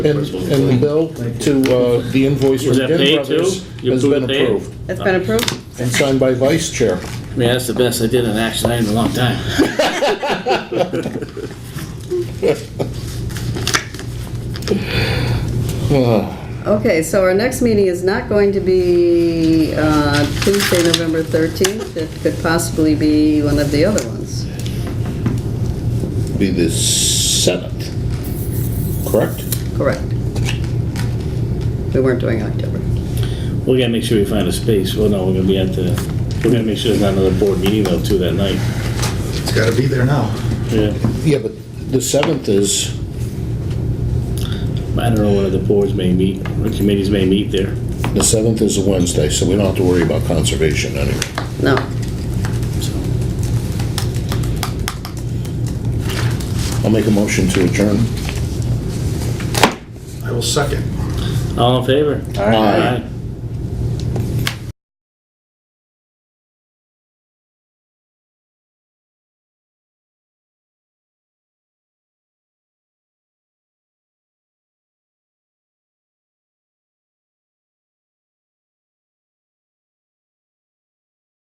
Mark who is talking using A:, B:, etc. A: And, and the bill to, uh, the invoice from
B: Was that paid,
A: Ginn Brothers
B: too? You
A: has been
B: approved it paid?
A: approved
C: That's been approved?
A: and signed by vice chair.
B: Yeah, that's the best I did in action item in a long time.
C: Okay, so our next meeting is not going to be uh, Tuesday, November 13th. It could possibly be one of the other ones.
A: Be the seventh, correct?
C: Correct. We weren't doing October.
B: We gotta make sure we find a space. Well, no, we're gonna be at the, we're gonna make sure there's not another board meeting though too that night.
D: It's gotta be there now.
B: Yeah.
A: Yeah, but the seventh is,
B: I don't know whether the boards may meet, or committees may meet there.
A: the seventh is a Wednesday, so we don't have to worry about conservation anyway.
C: No.
B: So,
A: I'll make a motion to adjourn.
D: I will second.
B: All in favor?
A: Aye.
B: Aye.